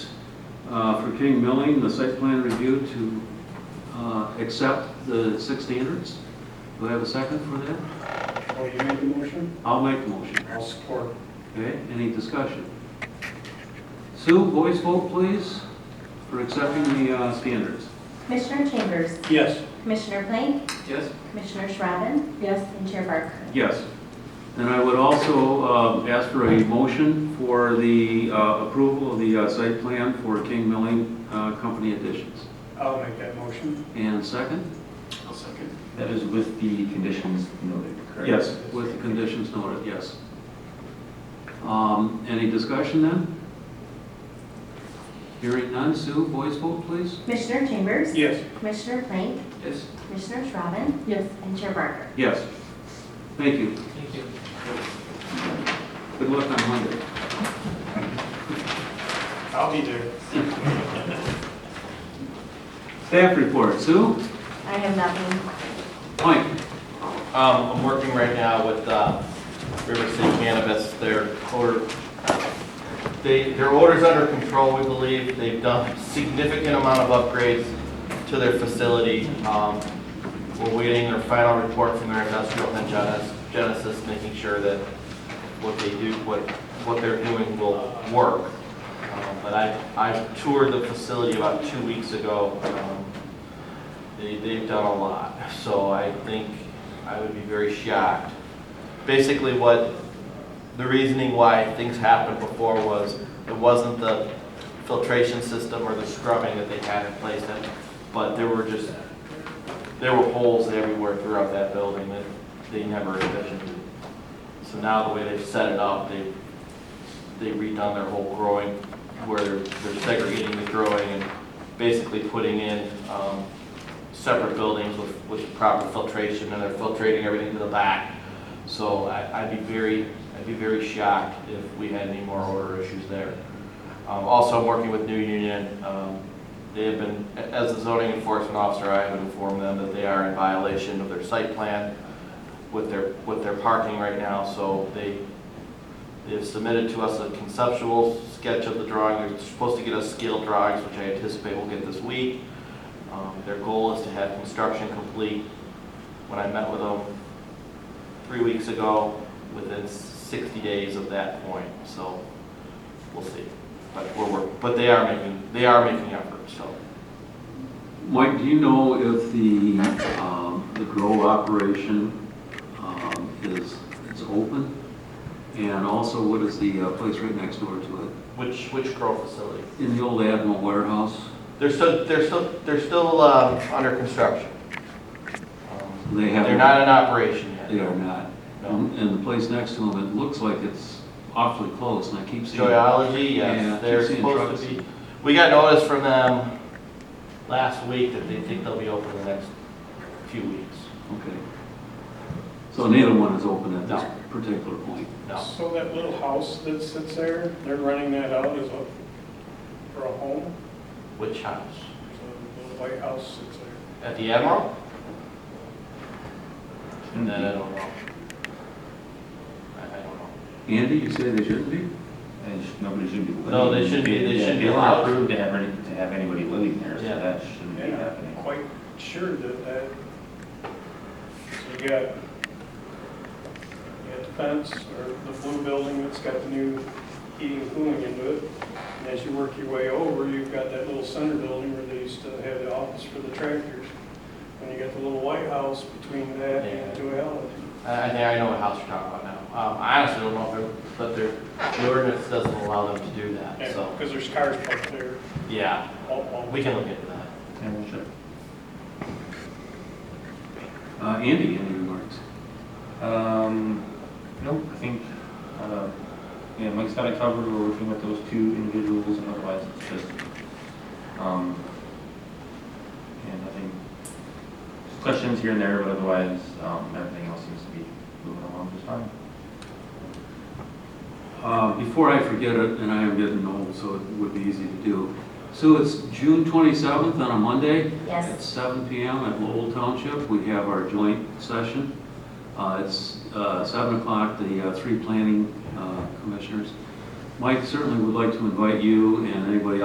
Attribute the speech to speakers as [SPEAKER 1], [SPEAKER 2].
[SPEAKER 1] uh, for King Milling, the site plan review to uh, accept the six standards. Do I have a second for that?
[SPEAKER 2] Oh, you made the motion?
[SPEAKER 1] I'll make the motion.
[SPEAKER 2] I'll support.
[SPEAKER 1] Okay, any discussion? Sue, voice vote, please, for accepting the uh, standards.
[SPEAKER 3] Commissioner Chambers,
[SPEAKER 2] Yes.
[SPEAKER 3] Commissioner Plank,
[SPEAKER 1] Yes.
[SPEAKER 3] Commissioner Shrabbin,
[SPEAKER 4] Yes.
[SPEAKER 3] and Chair Barker.
[SPEAKER 1] Yes. And I would also um, ask for a motion for the uh, approval of the uh, site plan for King Milling uh, Company additions.
[SPEAKER 2] I'll make that motion.
[SPEAKER 1] And second?
[SPEAKER 2] I'll second.
[SPEAKER 5] That is with the conditions noted, correct?
[SPEAKER 1] Yes, with the conditions noted, yes. Um, Any discussion then? Hearing none, Sue, voice vote, please.
[SPEAKER 3] Commissioner Chambers,
[SPEAKER 2] Yes.
[SPEAKER 3] Commissioner Plank,
[SPEAKER 1] Yes.
[SPEAKER 3] Commissioner Shrabbin,
[SPEAKER 4] Yes.
[SPEAKER 3] and Chair Barker.
[SPEAKER 1] Yes. Thank you.
[SPEAKER 6] Thank you.
[SPEAKER 1] Good luck on Monday.
[SPEAKER 2] I'll be there.
[SPEAKER 1] Staff report, Sue?
[SPEAKER 3] I have nothing.
[SPEAKER 1] Mike?
[SPEAKER 6] Um, I'm working right now with, uh, River City Cannabis, their order, they, their order's under control, we believe, they've done significant amount of upgrades to their facility. Um, we're waiting their final report from their industrial and Genes- Genesis, making sure that what they do, what, what they're doing will work. Um, But I, I toured the facility about two weeks ago, um, they, they've done a lot, so I think I would be very shocked. Basically, what, the reasoning why things happened before was, it wasn't the filtration system or the scrubbing that they had in place, that- but there were just, there were holes everywhere throughout that building that they never envisioned. So now the way they've set it up, they, they redone their whole growing, where they're they're segregating the growing and basically putting in, um, separate buildings with, with proper filtration, and they're filtrating everything to the back. So I, I'd be very, I'd be very shocked if we had any more order issues there. Um, also, I'm working with New Union, um, they have been, a- as the zoning enforcement officer, I have informed them that they are in violation of their site plan with their, with their parking right now, so they, they've submitted to us a conceptual sketch of the drawing, they're supposed to get us scale drawings, which I anticipate we'll get this week. Um, Their goal is to have construction complete. When I met with them three weeks ago, within 60 days of that point, so we'll see. But we're, work- but they are making, they are making efforts, so.
[SPEAKER 1] Mike, do you know if the, um, the grow operation, um, is, is open? And also, what is the uh, place right next door to it?
[SPEAKER 6] Which, which grow facility?
[SPEAKER 1] In the old Admiral warehouse,
[SPEAKER 6] They're still, they're still, they're still um, under construction. Um,
[SPEAKER 1] they have.
[SPEAKER 6] They're not in operation
[SPEAKER 1] They
[SPEAKER 6] yet.
[SPEAKER 1] are not. Um,
[SPEAKER 6] No.
[SPEAKER 1] And and the place next to them, it looks like it's awfully close, and I keep seeing.
[SPEAKER 6] Joyology,
[SPEAKER 1] Yeah, I
[SPEAKER 6] yes,
[SPEAKER 1] keep
[SPEAKER 6] they're
[SPEAKER 1] seeing
[SPEAKER 6] supposed
[SPEAKER 1] trucks.
[SPEAKER 6] to be, we got notice from them last week that they think they'll be open in the next few weeks.
[SPEAKER 1] Okay. So neither one is open at this
[SPEAKER 6] No.
[SPEAKER 1] particular point.
[SPEAKER 6] No.
[SPEAKER 2] So that little house that sits there, they're running that out as a, for a home?
[SPEAKER 6] Which house?
[SPEAKER 2] So the little white house sits there.
[SPEAKER 6] At the Admiral?
[SPEAKER 5] And
[SPEAKER 6] Then I
[SPEAKER 5] it
[SPEAKER 6] don't know. I I don't know.
[SPEAKER 1] Andy, you say they shouldn't be?
[SPEAKER 5] sh- nobody should be living.
[SPEAKER 6] No, they shouldn't be- they
[SPEAKER 5] Yeah,
[SPEAKER 6] shouldn't be
[SPEAKER 5] They
[SPEAKER 6] allowed.
[SPEAKER 5] were approved to have, any- to have anybody living there, so
[SPEAKER 6] Yeah.
[SPEAKER 5] that shouldn't be
[SPEAKER 2] And I'm
[SPEAKER 5] happening.
[SPEAKER 2] quite sure that that, so you got, you got the fence or the blue building that's got the new heating and cooling into it. And as you work your way over, you've got that little center building where they used to have the office for the tractors. And you got the little white house between that and
[SPEAKER 6] Yeah.
[SPEAKER 2] Joella.
[SPEAKER 6] I, I think I know what house you're talking about now. Um, I honestly don't know, if they're- but their, the ordinance doesn't allow them to do that, so,
[SPEAKER 2] Because there's cars parked there
[SPEAKER 6] yeah,
[SPEAKER 2] all, all
[SPEAKER 6] we can look into that.
[SPEAKER 5] And we'll check.
[SPEAKER 1] Uh, Andy, any remarks?
[SPEAKER 5] Um, nope, I think, uh, yeah, Mike's got it covered, we're working with those two individuals, and otherwise it's just, um, and I think, just questions here and there, but otherwise, um, everything else seems to be moving along just fine.
[SPEAKER 1] Uh, Before I forget it, and I am getting old, so it would be easy to do. So it's June 27th on a Monday at
[SPEAKER 3] Yes.
[SPEAKER 1] 7 PM at Lowell Township. We have our joint session. Uh, It's uh, 7 o'clock, the uh, three planning uh, commissioners. Mike certainly would like to invite you and anybody